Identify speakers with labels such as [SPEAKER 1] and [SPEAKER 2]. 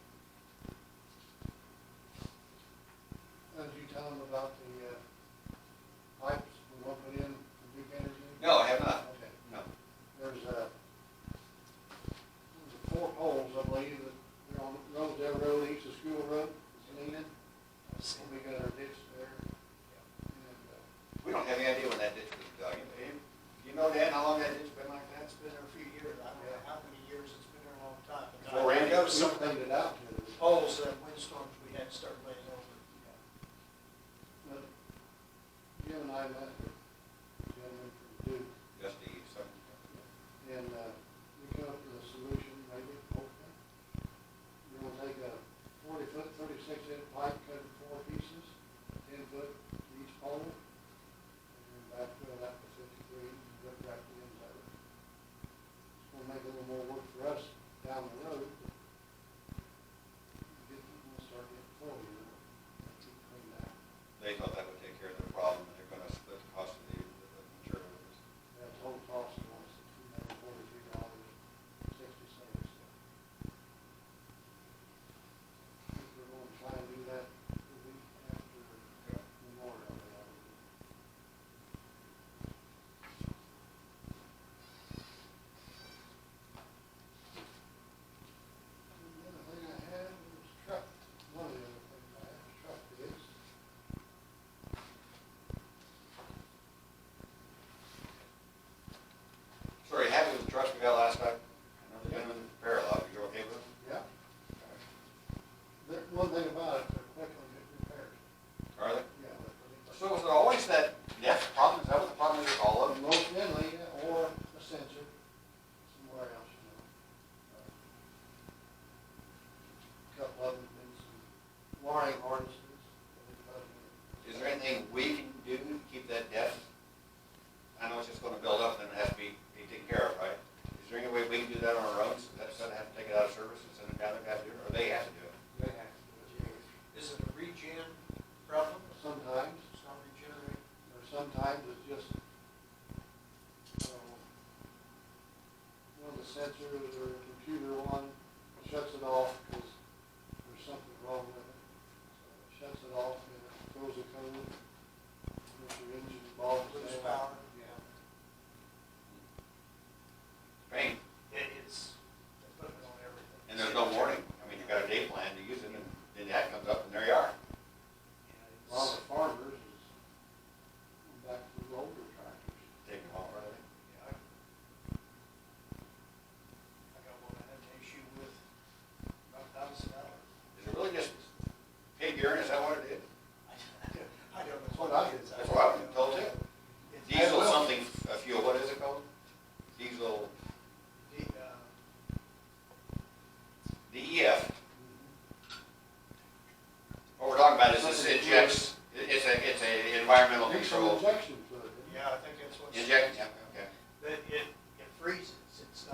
[SPEAKER 1] uh, uh, uh,
[SPEAKER 2] was something,
[SPEAKER 1] it out to
[SPEAKER 2] the poles, that windstorms, we had to start laying over.
[SPEAKER 1] but Jim and I met the gentleman from Duke,
[SPEAKER 3] Just the second.
[SPEAKER 1] and, uh, we come up with a solution, maybe, hopefully. We're gonna take a forty foot, thirty-six inch pipe, cut it in four pieces, ten foot to each pole, and then backfill that with fifty-three, and rip back the ends of it. It's gonna make a little more work for us down the road, but get, we'll start getting full, you know, keep cleaning that.
[SPEAKER 3] They thought that would take care of their problem, and they're gonna split the cost of the, the materials.
[SPEAKER 1] That total cost was two hundred forty-three dollars, sixty cents. If we're gonna try and do that the week after Memorial Day. I would think. And The other thing I had was truck, one of the other things I had was truck bids.
[SPEAKER 3] So are you happy with the trucks we got last night? I know they've been in the parallel, you okay with them?
[SPEAKER 1] Yeah. The, one thing about it, they're quick on getting repaired.
[SPEAKER 3] Are they?
[SPEAKER 1] Yeah, they're pretty quick.
[SPEAKER 3] So was it always that depth problem, is that what the problem is with all of them?
[SPEAKER 1] Most deadly, or a sensor, somewhere else, you know. Couple of them, been some wiring harnesses. that we've got here.
[SPEAKER 3] Is there anything we can do to keep that depth? I know it's just gonna build up and then it has to be, be taken care of, right? Is there any way we can do that on our own, so that's gonna have to take it out of service and send it down there, have to do it, or they have to do it?
[SPEAKER 1] They have to do it.
[SPEAKER 2] Is it a regen problem?
[SPEAKER 1] Sometimes,
[SPEAKER 2] It's not regenerating.
[SPEAKER 1] or sometimes it's just, um, one of the sensors or a computer one shuts it off because there's something wrong with it. So it Shuts it off and it throws a code, if your engine involved.
[SPEAKER 2] Lose power. uh, uh,
[SPEAKER 3] E